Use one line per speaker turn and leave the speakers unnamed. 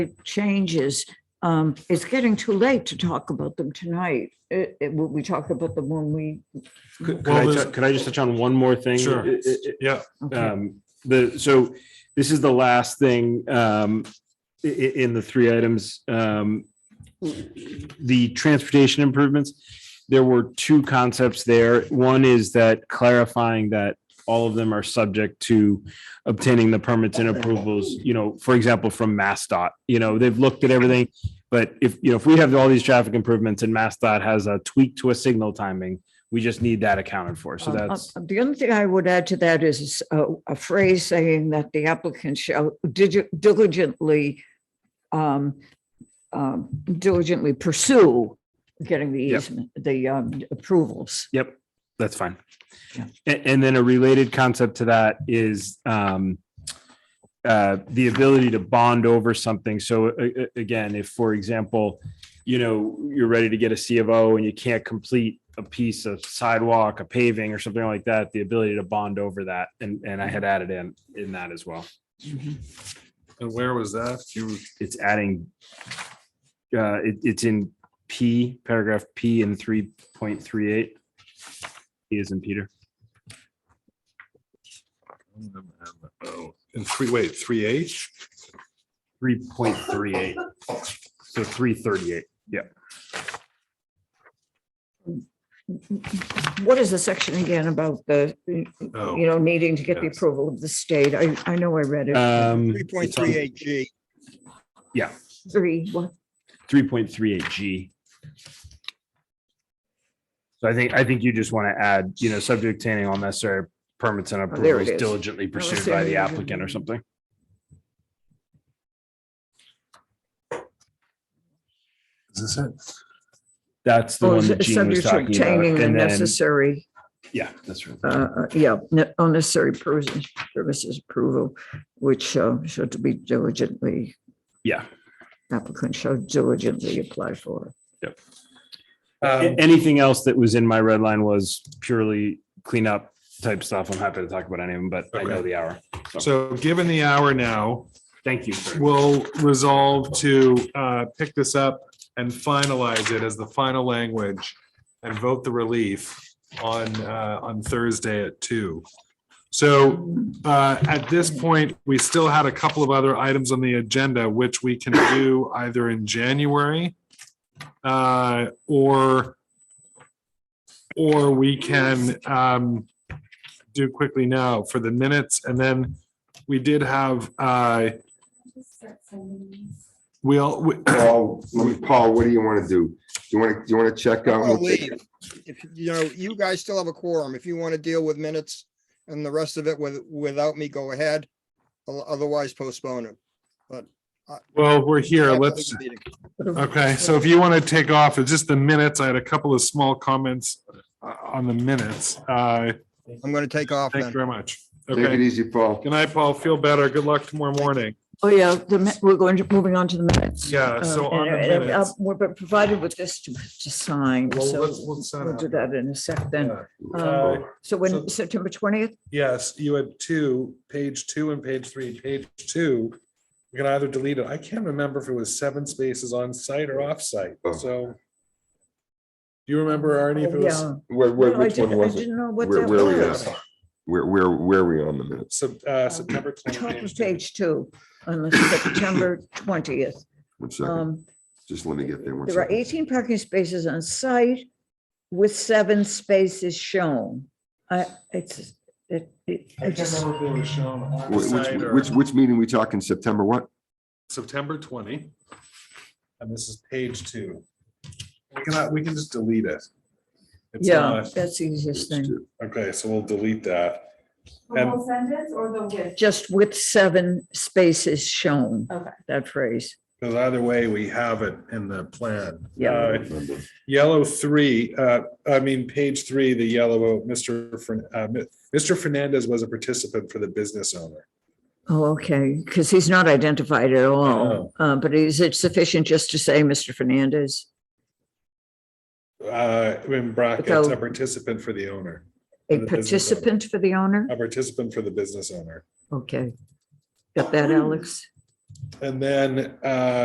changes. Um, it's getting too late to talk about them tonight. It, it, we talk about them when we,
Could could
Well,
I,
there's-
tou- could I just touch on one more thing?
Sure.
It- it-
Yeah,
it-
okay,
um, The, so this is the last thing um, i- i- in the three items. Um, The transportation improvements, there were two concepts there. One is that clarifying that all of them are subject to obtaining the permits and approvals, you know, for example, from MassDOT. You know, they've looked at everything, but if, you know, if we have all these traffic improvements and MassDOT has a tweak to a signal timing, we just need that accounted for. So
Um, uh,
that's.
The only thing I would add to that is a, a phrase saying that the applicant shall digi- diligently um, um, diligently pursue getting the
Yep.
easement, the um, approvals.
Yep, that's fine.
Yeah.
And, and then a related concept to that is um, uh, the ability to bond over something. So a- a- again, if, for example, you know, you're ready to get a C of O and you can't complete a piece of sidewalk, a paving or something like that, the ability to bond over that. And, and I had added in, in that as well.
and where was that? You,
It's adding, uh, it, it's in P, paragraph P in three point three eight. P is in Peter.
oh, in three, wait, three H?
Three point three eight. So three thirty-eight.
What is the section again about the, you
Oh,
know, needing to get the
yes.
approval of the state? I, I know I read it.
Um,
Three point three eight G.
Three, what?
three point three eight G. So I think, I think you just want to add, you know, subject obtaining all necessary permits and
Oh, there it
approvals
is. Oh,
diligently pursued by the applicant or something.
is this it?
That's the
Oh,
one
is
that
it
Gene
subject
was
to
talking about.
obtaining the
And then,
necessary,
yeah, that's right.
uh, uh, yeah, ne- unnecessary pers- services approval, which uh, should be diligently,
Yeah.
applicant should diligently apply for. um,
A- Anything else that was in my red line was purely cleanup type stuff. I'm happy to talk about any of them, but I know
Okay.
the hour.
So given the hour now,
Thank you. sir.
we'll resolve to uh, pick this up and finalize it as the final language and vote the relief on, uh, on Thursday at two. So uh, at this point, we still had a couple of other items on the agenda, which we can do either in January uh, or or we can um, do quickly now for the minutes. And then we did have uh, We'll, we-
Paul, Paul, what do you want to do? Do you want to, do you want to check out?
I'll leave. If, you know, you guys still have a quorum. If you want to deal with minutes and the rest of it with, without me, go ahead. O- Otherwise postpone it.
well, we're here.
After the
Let's,
meeting.
okay, so if you want to take off, it's just the minutes. I had a couple of small comments uh, on the minutes. Uh,
I'm going to take off
Thank you
then.
very much.
Take it
Okay.
easy, Paul.
Good night, Paul. Feel better. Good luck tomorrow morning.
Oh, yeah, the mi- we're going to, moving on to the minutes.
Yeah, so
Um,
on the
and, uh,
minutes.
We're provided with this to, to sign,
Well,
so
let's- let's sign
we'll do
after.
that in a sec then.
Uh,
Um, So when,
so-
September twentieth,
Yes, you had two, page two and page three. Page two, you can either delete it. I can't remember if it was seven spaces on site or off site.
Oh.
So do you remember, Arnie, if it was
yeah.
Where, where,
No, I
which one
didn't, I
was it?
didn't know what
Where,
that
where we
were.
are,
was.
where, where, where are we on the minutes?
Sep- uh, September 20th,
Top
page
of
two.
Page two, on the September twentieth.
One second,
Um,
just let me get there. one
there are
second.
eighteen parking spaces on site with seven spaces shown. I, it's, it, it, I
I can't
just,
remember if it was shown on
Wh-
site
Which,
or
which, which meeting we talking, September what?
September twenty. And this is page two. We cannot, we can just delete it. It's uh,
yeah,
not-
that's the easiest thing.
Okay, so we'll delete that.
The whole sentence or the with?
Just with seven spaces shown,
Okay.
that phrase.
Because either way, we have it in the plan.
Yeah.
Uh, Yellow three, uh, I mean, page three, the yellow, Mr. Fern, uh, Mr. Fernandez was a participant for the business owner.
Oh, okay, because he's not identified at all,
know.
uh, but is it sufficient just to say Mr. Fernandez?
Uh, in brackets,
So-
a participant for the owner,
A
The business owner.
participant for the owner?
a participant for the business owner.
Okay. Got that, Alex?
And then, uh,